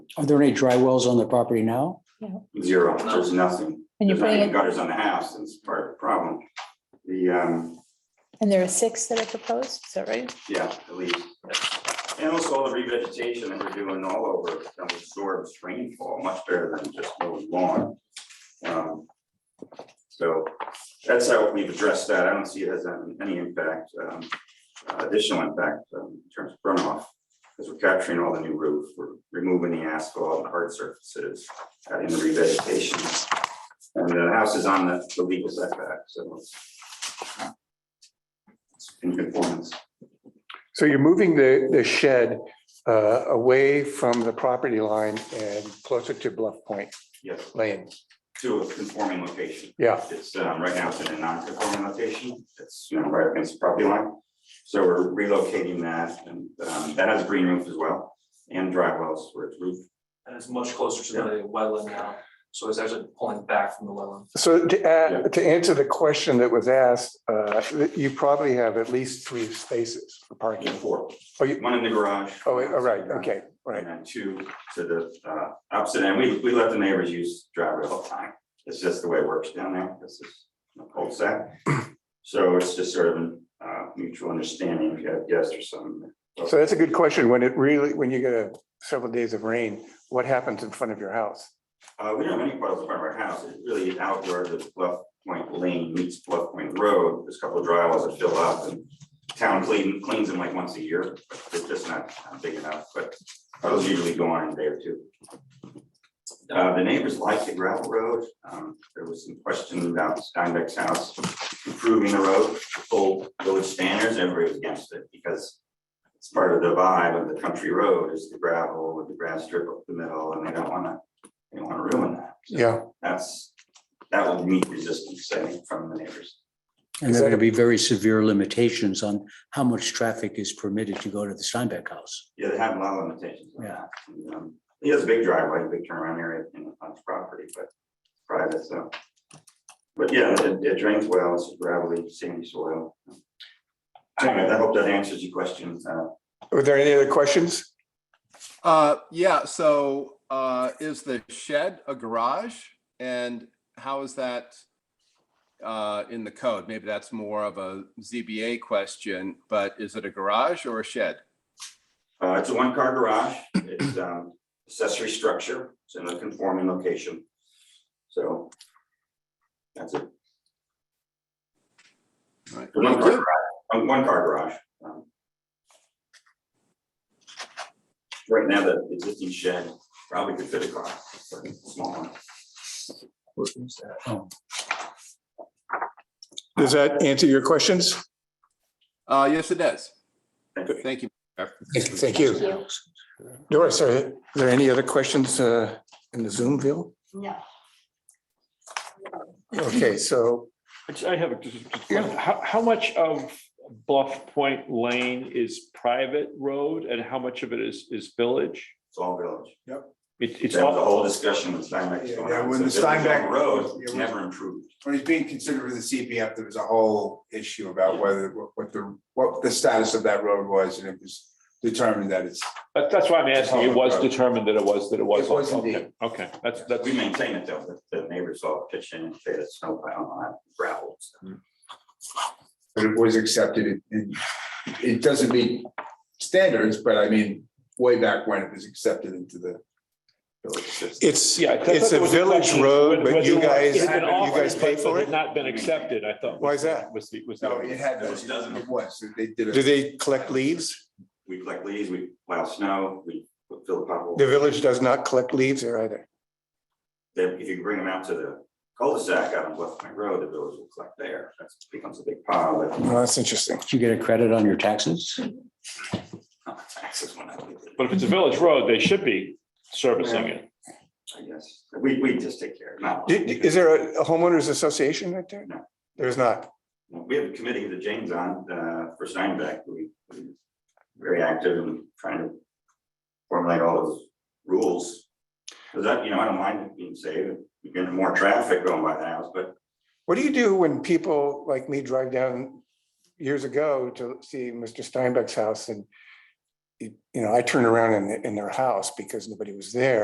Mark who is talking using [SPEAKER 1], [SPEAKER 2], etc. [SPEAKER 1] Are there any dry wells on the property now?
[SPEAKER 2] Zero, there's nothing.
[SPEAKER 3] And you're
[SPEAKER 2] There's not
[SPEAKER 3] putting
[SPEAKER 2] even
[SPEAKER 3] it,
[SPEAKER 2] Gutters on the house, that's part of the problem. The, um,
[SPEAKER 3] and there are six that are proposed, is that right?
[SPEAKER 2] yeah, at least. And also all the revegetation that we're doing all over, that absorbs rainfall much better than just mowing lawn. Um, So that's how we've addressed that. I don't see it as um, any impact, um, additional impact um, in terms of runoff. Because we're capturing all the new roof, we're removing the asphalt and hard surfaces, adding the revegetation. And the house is on the the legal setback, so it's it's in conformance.
[SPEAKER 4] So you're moving the, the shed uh, away from the property line and closer to Bluff Point
[SPEAKER 2] Yes.
[SPEAKER 4] Lane.
[SPEAKER 2] to a conforming location.
[SPEAKER 4] Yeah,
[SPEAKER 2] It's, um, right now it's in a non-conforming location. It's, you know, right against the property line. So we're relocating that and, um, that has a green roof as well and dry wells where it's roofed.
[SPEAKER 5] and it's much closer to the wetland now, so it's actually pulling back from the wetland.
[SPEAKER 4] so to,
[SPEAKER 2] Yeah.
[SPEAKER 4] add- to answer the question that was asked, uh, you probably have at least three spaces for parking.
[SPEAKER 2] Four,
[SPEAKER 4] Oh, you,
[SPEAKER 2] one in the garage.
[SPEAKER 4] oh, all right, okay, all right.
[SPEAKER 2] And then two to the, uh, opposite end. We, we let the neighbors use driveway all the time. It's just the way it works down there. This is a cul de So it's just sort of, an, uh, mutual understanding. If you have guests or something.
[SPEAKER 4] So that's a good question. When it really, when you get a several days of rain, what happens in front of your house?
[SPEAKER 2] Uh, we don't have any puddles in front of our house, it's really out where the Bluff Point Lane meets Bluff Point Road, there's a couple of dry wells that fill up and. Town clean, cleans them like once a year, but they're just not not big enough, but puddles usually go on in a day or two. Uh, the neighbors like the gravel road, um, there was some question about Steinbeck's house improving the road, to full village standards, everybody was against it, because. It's part of the vibe of the country road is the gravel with the grass strip up the middle, and they don't wanna they don't wanna ruin that. So
[SPEAKER 4] Yeah,
[SPEAKER 2] That's, that would meet resistance, I think, from the neighbors.
[SPEAKER 1] And there are going to be very severe limitations on how much traffic is permitted to go to the Steinbeck house.
[SPEAKER 2] Yeah, they have a lot of limitations on that. And, um, He has a big driveway, big turnaround area in on his property, but it's private, so. But yeah, it it drains well, it's gravelly, sandy soil. Anyway, I hope that answers your questions. Uh,
[SPEAKER 4] were there any other questions?
[SPEAKER 6] Uh, yeah, so, uh, is the shed a garage? And how is that, uh, in the code? Maybe that's more of a ZBA question, but is it a garage or a shed?
[SPEAKER 2] Uh, it's a one-car garage, it's um, accessory structure, it's in a conforming location. So. That's it.
[SPEAKER 6] Right.
[SPEAKER 2] One car garage, um, one car garage. um. Right now, the existing shed probably could fit a car, but it's a small one.
[SPEAKER 4] Does that answer your questions?
[SPEAKER 6] Uh, yes, it does.
[SPEAKER 2] Thank you.
[SPEAKER 6] Thank you.
[SPEAKER 4] Thank you. Doris, are there any other questions uh, in the Zoom view?
[SPEAKER 7] No.
[SPEAKER 4] Okay, so
[SPEAKER 8] I just- I have a, just- just a
[SPEAKER 4] Yeah.
[SPEAKER 8] question. how, how much of Bluff Point Lane is private road and how much of it is, is village?
[SPEAKER 2] It's all village.
[SPEAKER 8] It,
[SPEAKER 2] It's
[SPEAKER 8] it's
[SPEAKER 2] all the
[SPEAKER 8] all,
[SPEAKER 2] whole discussion with Steinbeck.
[SPEAKER 9] Yeah, yeah, when the Steinbeck-
[SPEAKER 2] Road, it's
[SPEAKER 9] Yeah, when-
[SPEAKER 2] never improved.
[SPEAKER 9] When he's being considered for the CPF, there was a whole issue about whether, what the, what the status of that road was, and it was determined that it's,
[SPEAKER 8] that- that's why I'm asking. It was determined that it was, that it was.
[SPEAKER 9] It was
[SPEAKER 8] Okay,
[SPEAKER 9] indeed.
[SPEAKER 8] Okay, that's, that's.
[SPEAKER 2] We maintain it though, the the neighbors all pitch in and say that's no, I don't know, gravel. so.
[SPEAKER 9] that it was accepted, It- it, it doesn't meet standards, but I mean, way back when it was accepted into the village system.
[SPEAKER 4] it's,
[SPEAKER 8] Yeah. I thought
[SPEAKER 4] it's a
[SPEAKER 8] there was
[SPEAKER 4] village
[SPEAKER 8] question as to
[SPEAKER 4] road,
[SPEAKER 8] whether-
[SPEAKER 4] but
[SPEAKER 8] whether
[SPEAKER 4] you
[SPEAKER 8] it
[SPEAKER 4] guys, you
[SPEAKER 8] had been offered,
[SPEAKER 4] guys pay
[SPEAKER 8] but
[SPEAKER 4] for
[SPEAKER 8] had
[SPEAKER 4] it?
[SPEAKER 8] Not been accepted, I thought.
[SPEAKER 4] Why is that?
[SPEAKER 8] Was the, was the.
[SPEAKER 9] No, it had,
[SPEAKER 2] Those doesn't-
[SPEAKER 9] it was, they did
[SPEAKER 4] Do
[SPEAKER 9] it.
[SPEAKER 4] they collect leaves?
[SPEAKER 2] We collect leaves, we plow snow, we fill the
[SPEAKER 4] The
[SPEAKER 2] potholes.
[SPEAKER 4] village does not collect leaves here either.
[SPEAKER 2] Then if you bring them out to the cul-de-sac out on Bluff Point Road, the village will collect there. That becomes a big pile of
[SPEAKER 4] Oh, That's interesting.
[SPEAKER 1] Do you get a credit on your taxes?
[SPEAKER 2] uh, taxes when I leave it,
[SPEAKER 8] But if it's a village road, they should be servicing it.
[SPEAKER 2] I guess. We, we just take care of
[SPEAKER 4] Do-
[SPEAKER 2] it.
[SPEAKER 4] Is there a homeowners association right there?
[SPEAKER 2] No.
[SPEAKER 4] There's not.
[SPEAKER 2] We have a committee that Jane's on uh, for Steinbeck. We, we're very active in trying to formulate all those rules. Because that, you know, I don't mind it being saved. You're getting more traffic going by the house, but
[SPEAKER 4] What do you do when people like me drive down years ago to see Mr. Steinbeck's house and you you know, I turn around in, in their house because nobody was there